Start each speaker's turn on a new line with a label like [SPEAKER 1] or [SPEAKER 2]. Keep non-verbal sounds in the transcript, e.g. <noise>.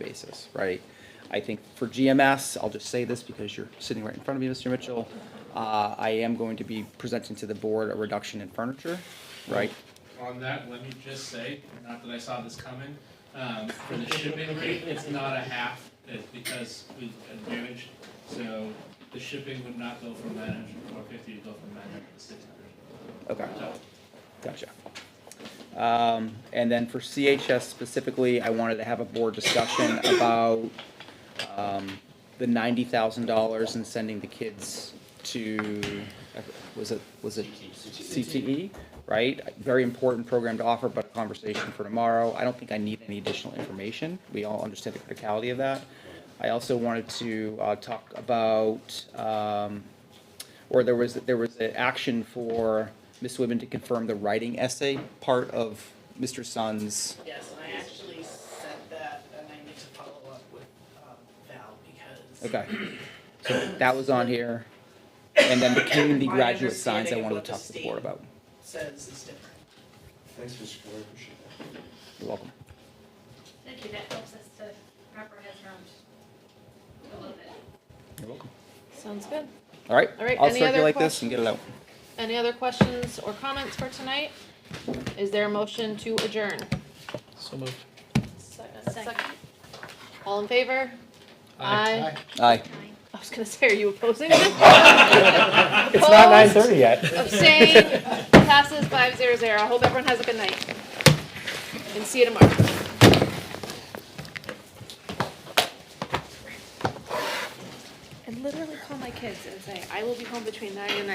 [SPEAKER 1] basis, right? I think for GMS, I'll just say this because you're sitting right in front of me, Mr. Mitchell. Uh, I am going to be presenting to the board a reduction in furniture, right?
[SPEAKER 2] On that, let me just say, not that I saw this coming, um, for the shipping rate, it's not a half, it's because we advantage. So the shipping would not go from nine hundred and four fifty, it'd go from nine hundred to six hundred.
[SPEAKER 1] Okay.
[SPEAKER 2] So
[SPEAKER 1] Gotcha. Um, and then for CHS specifically, I wanted to have a board discussion about, um, the ninety thousand dollars and sending the kids to, was it, was it CTE? Right? Very important program to offer, but a conversation for tomorrow. I don't think I need any additional information. We all understand the criticality of that. I also wanted to, uh, talk about, um, or there was, there was an action for Ms. Whitman to confirm the writing essay part of Mr. Sun's.
[SPEAKER 3] Yes, and I actually sent that, and I need to follow up with um, Val because.
[SPEAKER 1] Okay. So that was on here. And then the community
[SPEAKER 3] My
[SPEAKER 1] graduate signs I
[SPEAKER 3] understanding of
[SPEAKER 1] wanted
[SPEAKER 3] what
[SPEAKER 1] to
[SPEAKER 3] the
[SPEAKER 1] talk to the board
[SPEAKER 3] state-
[SPEAKER 1] about.
[SPEAKER 3] Says is different.
[SPEAKER 4] Thanks, Mr. Carter, appreciate that.
[SPEAKER 1] You're welcome.
[SPEAKER 5] Thank you, that helps us to wrap our heads around a little bit.
[SPEAKER 1] You're welcome.
[SPEAKER 6] Sounds good.
[SPEAKER 1] All right.
[SPEAKER 6] All right,
[SPEAKER 1] I'll
[SPEAKER 6] any other
[SPEAKER 1] circulate this and get it out.
[SPEAKER 6] Any other questions or comments for tonight? Is there a motion to adjourn?
[SPEAKER 7] So moved.
[SPEAKER 6] Second. All in favor?
[SPEAKER 1] Aye.
[SPEAKER 6] Aye.
[SPEAKER 5] Nine.
[SPEAKER 6] I was gonna say, are you opposing?
[SPEAKER 7] <laughs> It's not nine thirty yet.
[SPEAKER 6] Abstain, passes five zero zero. I hope everyone has a good night. And see you tomorrow.
[SPEAKER 5] I literally call my kids and say,
[SPEAKER 6] I will be home between nine and nine